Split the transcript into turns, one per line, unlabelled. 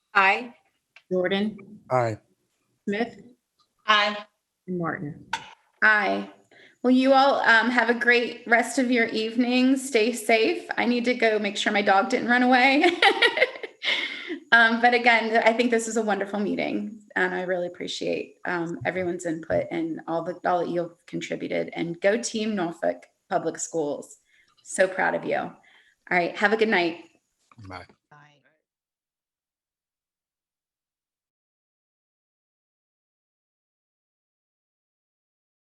Aye.
Jordan,
Aye.
Smith,
Aye.
and Martin.
Aye. Well, you all um, have a great rest of your evening. Stay safe. I need to go make sure my dog didn't run away. um, but again, I think this is a wonderful meeting, and I really appreciate um, everyone's input and all the all that you've contributed. And go team Norfolk Public Schools. So proud of you. All right. Have a good night.
Bye.